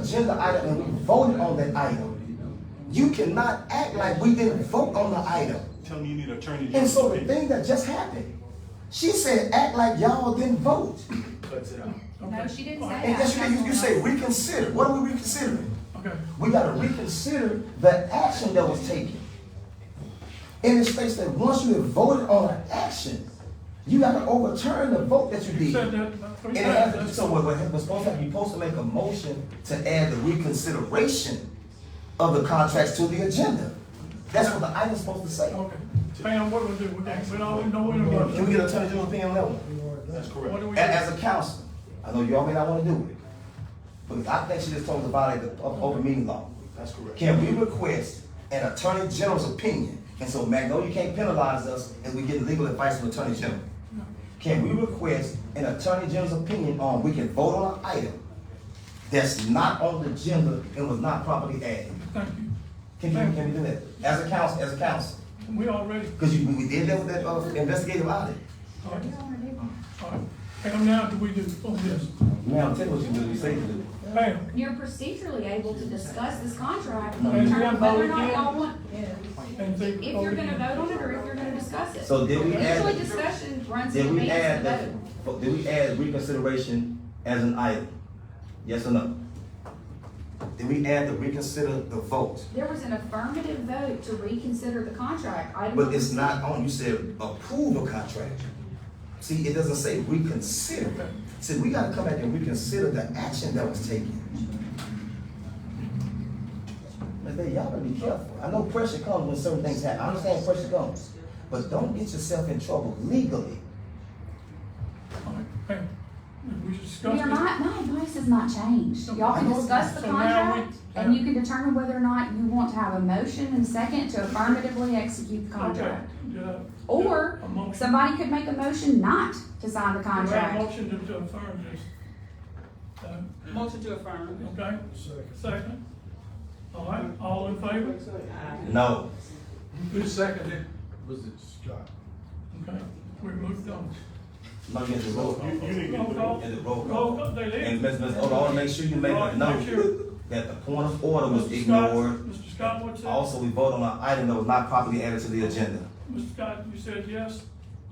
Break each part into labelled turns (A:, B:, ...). A: agenda item and we voted on that item. You cannot act like we didn't vote on the item.
B: Tell me you need an attorney.
A: And so the thing that just happened, she said, act like y'all didn't vote.
C: Cuts it out.
D: No, she didn't say that.
A: And yes, you did. you, you say reconsider. What are we reconsidering?
C: Okay.
A: We gotta reconsider the action that was taken. And it states that once you have voted on an action, you gotta overturn the vote that you
C: You
A: did.
C: said
A: And
C: that about three
A: it
C: times.
A: has, so what, what was supposed to happen, you're supposed to make a motion to add the reconsideration of the contracts to the agenda. That's what the item's supposed to say.
C: Okay. Pam, what do we do? We don't, we don't, we don't
A: Can
C: interrupt.
A: we get Attorney General's opinion on that one?
B: That's
C: What
B: correct.
C: do we
A: A- As, a council, I know y'all may not wanna do it, but I think she just told us about it, the o- open meeting law.
B: That's correct.
A: Can we request an attorney general's opinion? And so Magnolia can't penalize us if we get legal advice from attorney general. Can we request an attorney general's opinion on, we can vote on an item that's not on the agenda and was not properly added?
C: Thank you.
A: Can you, can you do that? As a council, as a council?
C: We already,
A: Because you, we did that with that, uh, investigative audit.
C: all right, all right. Pam, now do we do on this?
A: Ma'am, tell us what you really say to do.
C: Pam,
D: You're procedurally able to discuss this contract,
C: No, you
D: determine
C: can't
D: whether or
C: vote
D: not
C: again.
D: y'all want,
C: and think.
D: if you're gonna vote on it or if you're gonna discuss it.
A: So did we add-
D: Usually discussion runs in
A: Did we
D: advance of
A: add
D: the
A: that,
D: vote.
A: but did we add reconsideration as an item? Yes or no? Did we add the reconsider the vote?
D: There was an affirmative vote to reconsider the contract. Item
A: But
D: number
A: it's not on, you said approve a contract. See, it doesn't say reconsider. See, we gotta come back and reconsider the action that was taken. But then y'all gotta be careful. I know pressure comes when certain things happen. I understand pressure comes. But don't get yourself in trouble legally.
C: All right, Pam, we discussed
D: Your,
C: it.
D: my, my advice has not changed. Y'all can discuss the
C: So now we-
D: contract, and you can determine whether or not you want to have a motion and second to affirmatively execute the
C: Okay.
D: contract.
C: Yeah.
D: Or
C: A motion.
D: somebody could make a motion not to sign the
C: Do I have a
D: contract.
C: motion to- to affirm this? Uh,
E: Motion to affirm.
C: Okay, second. All right, all in favor?
A: No.
F: Who seconded? Was it Scott?
C: Okay, we moved on.
A: No, you have to roll
B: You,
A: call.
B: you need to
C: Roll
B: do
C: call.
B: it.
A: And the roll
C: Roll
A: call.
C: call, they
A: And Ms.
C: did.
A: Ms. Oda, I wanna make sure you make
C: Right,
A: a
C: make sure.
A: note that the point of order was
C: Mr. Scott,
A: ignored.
C: Mr. Scott, what's that?
A: Also, we voted on an item that was not properly added to the agenda.
C: Mr. Scott, you said yes?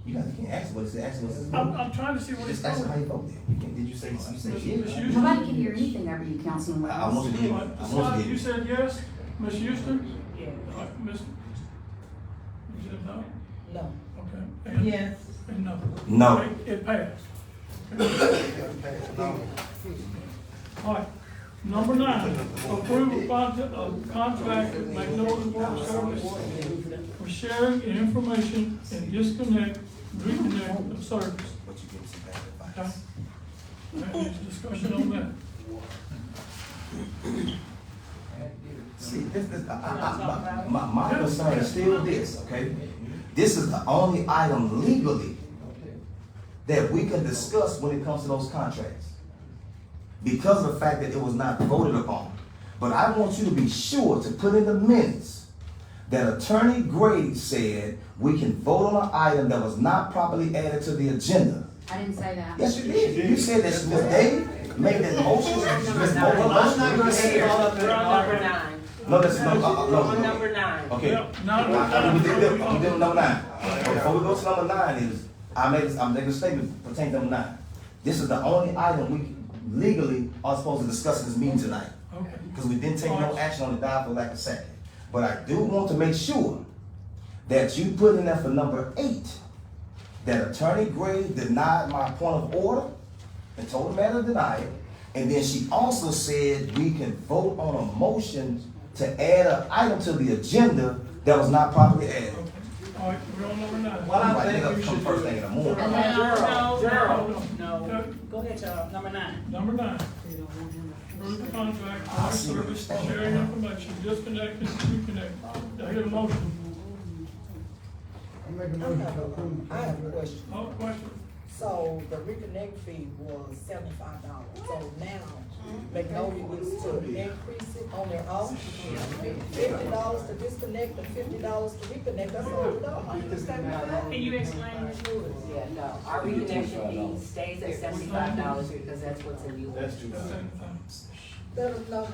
A: You guys can't ask what it said, ask what it
C: I'm,
A: said.
C: I'm trying to see what he's
A: Just ask how
C: doing.
A: you voted. You can't- Did you say, you said
C: Ms.
A: yes?
C: Houston?
D: Nobody can hear anything over you, Councilman
A: I
D: Wells.
A: want you to hear, I
C: Mr.
A: want
C: Scott,
A: you
C: you
A: to hear.
C: said yes? Ms. Houston?
E: Yes.
C: All right, Ms. You said no?
E: No.
C: Okay. And-
E: Yes.
C: And no?
A: No.
C: It- It passed. All right, number nine, approve a contra- a contract with Magnolia Water Service for sharing information and disconnect, reconnect of service.
A: But you gave us some bad
C: Okay?
A: advice.
C: That needs discussion on that.
A: See, this is, I, I, I, my, my my concern is still this, okay? This is the only item legally that we can discuss when it comes to those contracts. Because of the fact that it was not voted upon. But I want you to be sure to put in the minutes that Attorney Grady said we can vote on an item that was not properly added to the agenda.
D: I didn't say that.
A: Yes, you did. You said that Ms. Davis made that motion. Ms. Mo-
E: I'm not gonna say it all
A: motion.
E: up in number nine.
A: No, that's, no, uh, uh, no.
E: On number nine.
A: Okay.
C: Yeah,
A: I-
C: now we're
A: I-
C: done.
A: We did that, we did number nine. Before we go to number nine is, I made, this- I'm making a statement pertaining to number nine. This is the only item we legally are supposed to discuss in this meeting tonight.
C: Okay.
A: Because we didn't take no action on the dial for lack of second. But I do want to make sure that you put in there for number eight, that Attorney Gray denied my point of order and told the matter denied. And then she also said we can vote on a motion to add an item to the agenda that was not properly added.
C: All right, we're on number nine.
F: Well, I think
A: Right,
F: we
A: come
F: should
A: First
F: do-
A: thing in the morning.
E: No,
C: Gerald.
E: no, no. Go ahead, y'all. Number nine.
C: Number nine. Approve the contract, water service, for sharing information, disconnect and reconnect. Do I hear a motion?
G: I'm making a motion to approve.
H: I have a question.
C: No question?
H: So the reconnect fee was seventy-five dollars, so now Magnolia gets to increase it on their own? Fifty dollars to disconnect and fifty dollars to reconnect, that's all we know, I understand that.
E: Can you explain this?
I: Yeah, no, our reconnection fee stays at seventy-five dollars because that's what's in the order.
C: That's it.
H: That is not